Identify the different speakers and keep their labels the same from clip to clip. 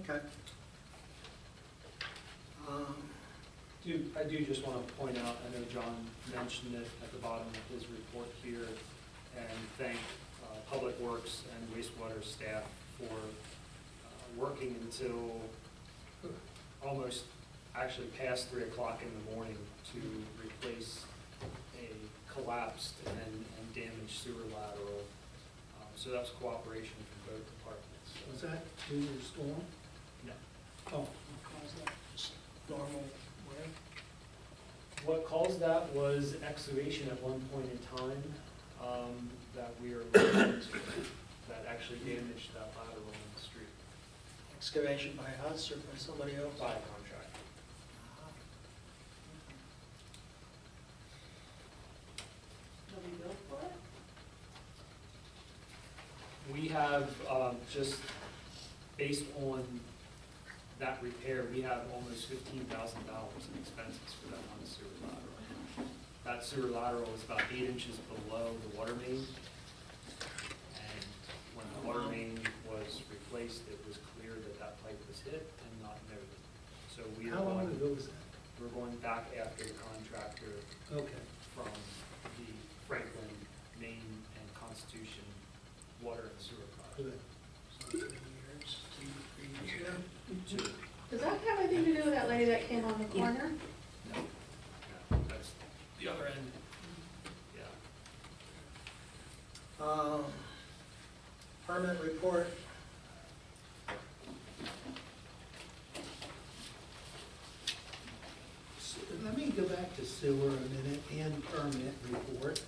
Speaker 1: Okay. Um,
Speaker 2: Do, I do just want to point out, I know John mentioned it at the bottom of his report here, and thank uh, Public Works and wastewater staff for uh, working until almost, actually past three o'clock in the morning to replace a collapsed and, and damaged sewer lateral. Uh, So that's cooperation from both departments.
Speaker 3: Was that due to the storm?
Speaker 2: No.
Speaker 3: Oh. what caused that? Just Normal wear?
Speaker 2: What caused that was excavation at one point in time um, that we are looking into, that actually damaged that lateral in the street
Speaker 1: Excavation by us or by somebody else?
Speaker 2: by a contractor.
Speaker 4: Nobody built for it?
Speaker 2: We have, um, just based on that repair, we have almost fifteen thousand dollars in expenses for that one sewer lateral. That sewer lateral is about eight inches below the water main. And when the water main was replaced, it was clear that that pipe was hit and not noted. So we are
Speaker 3: How long
Speaker 2: going,
Speaker 3: ago was that?
Speaker 2: we're going back after the contractor
Speaker 3: Okay.
Speaker 2: from the Franklin, Maine, and Constitution Water and Sewer Project.
Speaker 3: good.
Speaker 1: So three years, two, three years ago.
Speaker 4: Does that have anything to do with that lady that came on the corner?
Speaker 2: No, no, that's,
Speaker 1: The other end.
Speaker 2: yeah.
Speaker 1: Um, Permit report.
Speaker 3: S- Let me go back to sewer a minute and permit report.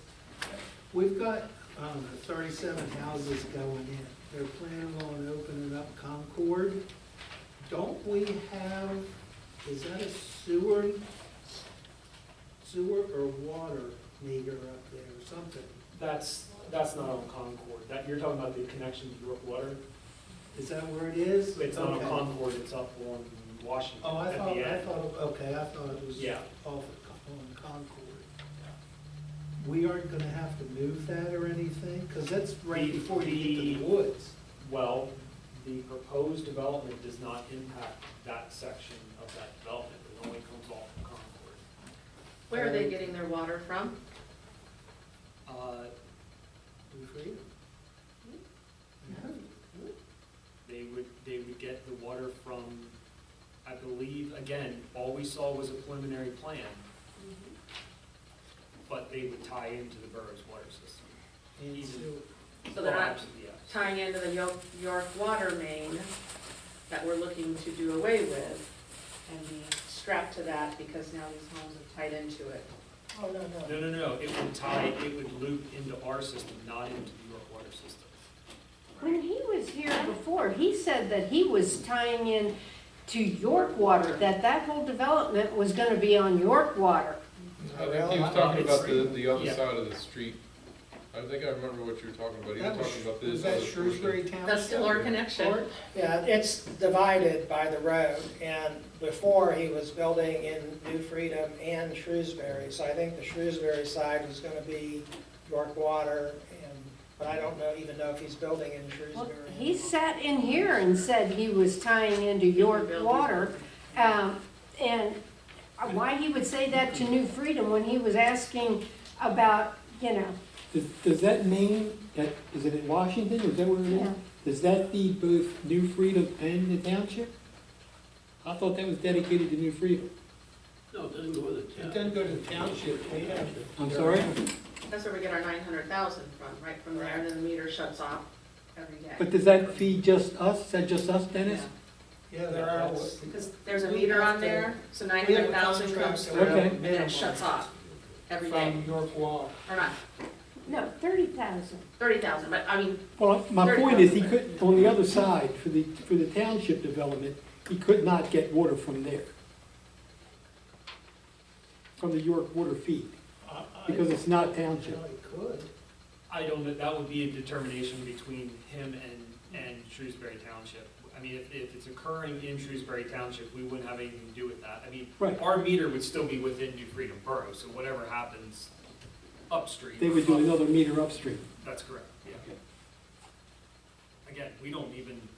Speaker 3: We've got, I don't know, thirty-seven houses going in. They're planning on opening up Concord. Don't we have, is that a sewer, sewer or water meter up there or something?
Speaker 2: That's, that's not on Concord, that, you're talking about the connection to Brook Water?
Speaker 3: Is that where it is?
Speaker 2: It's not on
Speaker 3: Okay.
Speaker 2: Concord, it's up on Washington.
Speaker 3: Oh, I
Speaker 2: at the
Speaker 3: thought, I
Speaker 2: end.
Speaker 3: thought, okay, I thought it was
Speaker 2: Yeah.
Speaker 3: off at Con- on Concord. We aren't gonna have to move that or anything, because that's right
Speaker 2: The-
Speaker 3: before you get to the
Speaker 2: the-
Speaker 3: woods.
Speaker 2: Well, the proposed development does not impact that section of that development, it only comes off of Concord.
Speaker 5: Where are they getting their water from?
Speaker 2: Uh,
Speaker 3: Good for you.
Speaker 4: Mm-hmm.
Speaker 2: They would, they would get the water from, I believe, again, all we saw was a preliminary plan, but they would tie into the borough's water system.
Speaker 3: And
Speaker 2: Easy.
Speaker 3: sewer.
Speaker 5: So they're not
Speaker 2: Well, yes.
Speaker 5: tying into the Yo- York water main that we're looking to do away with and be strapped to that because now these homes are tied into it.
Speaker 1: Oh, no, no.
Speaker 2: No, no, no, it would tie, it would loop into our system, not into the York water system.
Speaker 6: When he was here before, he said that he was tying in to York Water, that that whole development was gonna be on York Water.
Speaker 7: I think he was talking about the, the other
Speaker 2: Yeah.
Speaker 7: side of the street. I think I remember what you were talking about. He
Speaker 3: That was-
Speaker 7: was talking about
Speaker 3: Was
Speaker 7: this.
Speaker 3: that
Speaker 7: other portion.
Speaker 3: Shrewsbury
Speaker 5: That's
Speaker 3: Township?
Speaker 5: still our connection.
Speaker 1: Yeah, it's divided by the road, and before he was building in New Freedom and Shrewsbury, so I think the Shrewsbury side was gonna be York Water, and, but I don't know, even know if he's building in
Speaker 6: Well,
Speaker 1: Shrewsbury.
Speaker 6: He sat in here and said he was tying into York Water. Um, and why he would say that to New Freedom when he was asking about, you know,
Speaker 8: Does, does that mean that, is it in Washington, is that where it
Speaker 6: Yeah.
Speaker 8: is? Does that feed both New Freedom and the township? I thought that was dedicated to New Freedom.
Speaker 9: No, it doesn't go with the
Speaker 3: It
Speaker 9: town.
Speaker 3: doesn't go to township, we have to.
Speaker 8: I'm sorry?
Speaker 5: That's where we get our nine hundred thousand from, right from there, and then the meter shuts off every
Speaker 8: But
Speaker 5: day.
Speaker 8: does that feed just us? Is that just us, Dennis?
Speaker 3: Yeah, there are.
Speaker 1: That's-
Speaker 5: Because there's a meter on there, so nine hundred thousand comes
Speaker 1: We
Speaker 5: through
Speaker 1: have a
Speaker 8: Okay.
Speaker 1: contract
Speaker 5: and then it shuts off every day,
Speaker 3: From York Wall.
Speaker 5: or not,
Speaker 6: no, thirty thousand.
Speaker 5: thirty thousand, but I mean,
Speaker 8: Well, my
Speaker 5: Thirty
Speaker 8: point is, he
Speaker 5: thousand.
Speaker 8: couldn't, on the other side, for the, for the township development, he could not get water from there. From the York water feed,
Speaker 3: I- I-
Speaker 8: because it's not
Speaker 3: I
Speaker 8: township.
Speaker 3: really could.
Speaker 2: I don't know, that would be a determination between him and, and Shrewsbury Township. I mean, if, if it's occurring in Shrewsbury Township, we wouldn't have anything to do with that. I mean,
Speaker 8: Right.
Speaker 2: our meter would still be within New Freedom Borough, so whatever happens upstream.
Speaker 8: They would do another meter upstream.
Speaker 2: That's correct, yeah. Again, we don't even